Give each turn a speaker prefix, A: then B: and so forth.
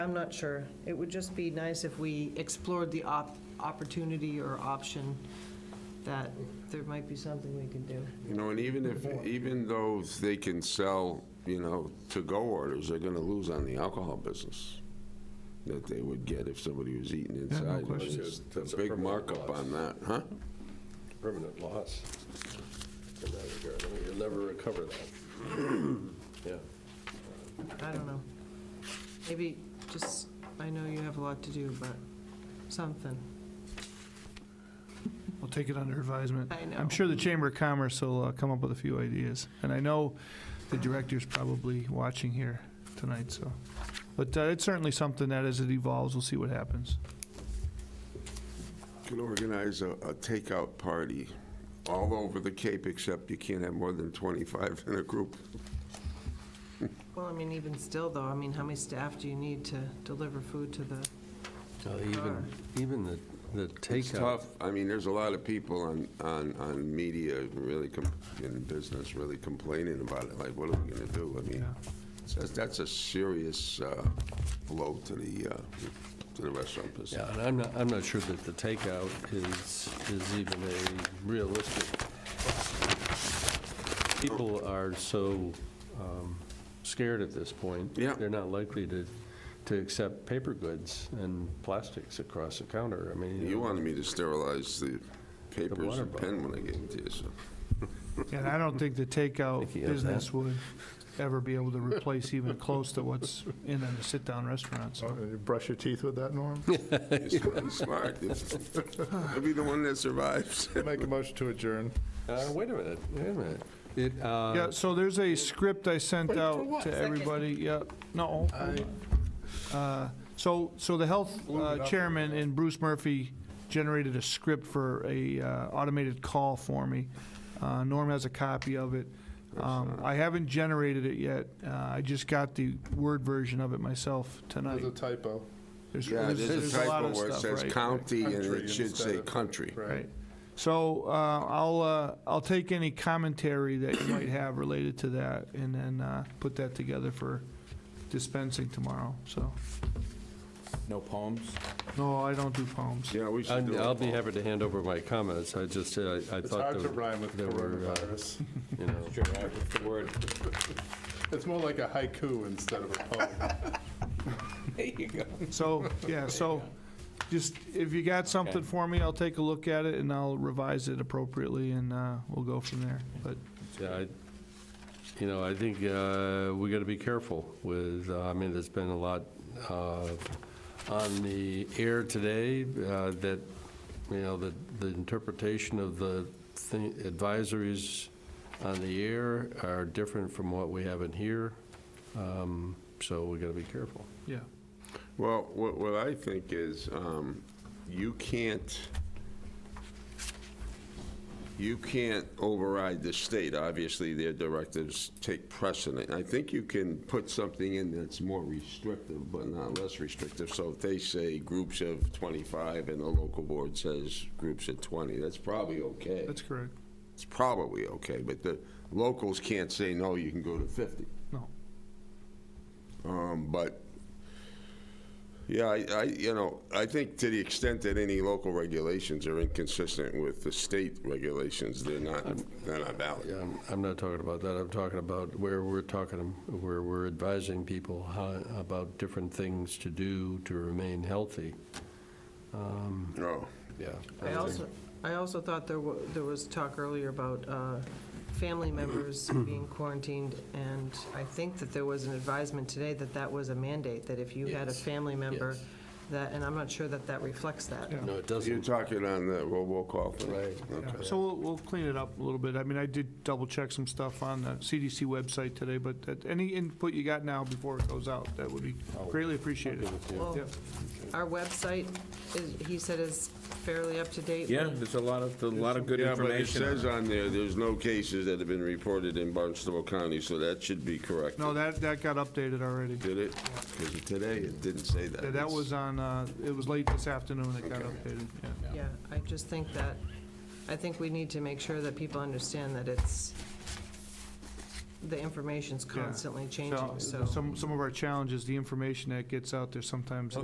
A: I'm not sure. It would just be nice if we explored the op, opportunity or option that there might be something we can do.
B: You know, and even if, even though they can sell, you know, to-go orders, they're gonna lose on the alcohol business that they would get if somebody was eating inside.
C: question.
B: It's
C: It's
B: a
C: a
B: big
C: permanent
B: markup
C: loss.
B: on that, huh?
C: permanent loss in that regard. I mean, You'll never recover that. Yeah.
A: I don't know. Maybe just, I know you have a lot to do, but something.
D: We'll take it under advisement.
A: I know.
D: I'm sure the Chamber of Commerce will uh, come up with a few ideas. And I know the director's probably watching here tonight, so. But uh, it's certainly something that as it evolves, we'll see what happens.
B: You Can organize a, a takeout party all over the Cape, except you can't have more than 25 in a group.
A: Well, I mean, even still though, I mean, how many staff do you need to deliver food to the,
C: Even, even the, the
B: It's
C: takeout.
B: tough. I mean, there's a lot of people on, on, on media really, com- in business, really complaining about it, like, what are we gonna do? I mean,
D: Yeah.
B: that's, that's a serious uh, blow to the, uh, to the restaurant business.
C: Yeah, and I'm not, I'm not sure that the takeout is, is even a realistic. People are so um, scared at this point.
B: Yeah.
C: They're not likely to, to accept paper goods and plastics across the counter. I mean.
B: You wanted me to sterilize the papers
C: water
B: and pen when I gave it to you, so.
D: And I don't think the takeout
C: Think he has that.
D: business would ever be able to replace even close to what's in the sit-down restaurants.
E: Oh,
D: so.
E: you Brush your teeth with that, Norm?
B: He's smart. I'll be the one that survives.
E: Make a motion to adjourn.
C: Uh, Wait a minute, wait a minute. It, uh,
D: Yeah, so there's a script I sent out to
A: Second.
D: everybody, yeah, no. Uh, So, so the health uh, chairman and Bruce Murphy generated a script for a uh, automated call for me. Uh, Norm has a copy of it. Um, I haven't generated it yet, Uh, I just got the Word version of it myself tonight.
E: There's a typo.
D: There's
B: Yeah,
D: there's-
B: there's
D: there's
B: a
D: a lot
B: typo
D: of
B: where it
D: stuff,
B: says
D: right,
B: county and
E: Country
B: it should
E: instead
B: say
E: of-
B: country.
D: Right. So uh, I'll, uh, I'll take any commentary that you might have related to that and then uh, put that together for dispensing tomorrow, so.
F: No poems?
D: No, I don't do poems.
B: Yeah, we should do
C: I'd-
B: it.
C: I'll be happy to hand over my comments, I just, uh, I
E: It's
C: thought
E: hard to
C: there were,
E: rhyme with
C: there were, uh,
E: coronavirus.
C: you know,
F: Sure, I- what's the word?
E: It's more like a haiku instead of a poem.
F: There you go.
D: So, yeah, so just, if you got something
F: Okay.
D: for me, I'll take a look at it and I'll revise it appropriately and uh, we'll go from there. But
C: yeah, I- you know, I think uh, we got to be careful with, uh, I mean, there's been a lot uh, on the air today uh, that, you know, the, the interpretation of the thi- advisories on the air are different from what we have in here, Um, so we got to be careful.
D: Yeah,
B: Well, what, what I think is, um, you can't, you can't override the state. Obviously, their directives take precedent. I think you can put something in that's more restrictive, but not less restrictive. So if they say groups of 25 and the local board says groups of 20, that's probably okay.
D: that's correct.
B: It's probably okay, but the locals can't say, no, you can go to 50.
D: No.
B: Um, But, yeah, I, I, you know, I think to the extent that any local regulations are inconsistent with the state regulations, they're not, they're not valid.
C: Yeah, I'm- Um, I'm not talking about that. I'm talking about where we're talking, where we're advising people how, about different things to do to remain healthy.
B: No.
C: Yeah.
A: I also, I also thought there wa, there was talk earlier about, uh, family members being quarantined, and I think that there was an advisement today that that was a mandate, that if you had a
C: Yes,
A: family member,
C: yes.
A: that, and I'm not sure that that reflects that.
D: Yeah.
C: No, it
B: You're
C: doesn't.
B: talking on the robocall thing?
C: Right.
D: Yeah,
B: Okay.
D: So we'll, we'll clean it up a little bit. I mean, I did double-check some stuff on the CDC website today, but that- any input you got now before it goes out, that would be greatly appreciated.
A: Well,
D: Yeah.
A: Our website, is, he said is fairly up to date.
F: Yeah, there's a lot of, a lot of good
B: Yeah, but it
F: information. on
B: says on there, there's no cases that have been reported in Barnstable County, so that should be correct.
D: No, that, that got updated already.
B: Did it? Because today, it didn't say that.
D: That that was on, uh, it was late this afternoon that got updated, yeah.
A: Yeah, I just think that, I think we need to make sure that people understand that it's, the information's
D: Yeah.
A: constantly changing, so.
D: Some, some of our challenges, the information that gets out there sometimes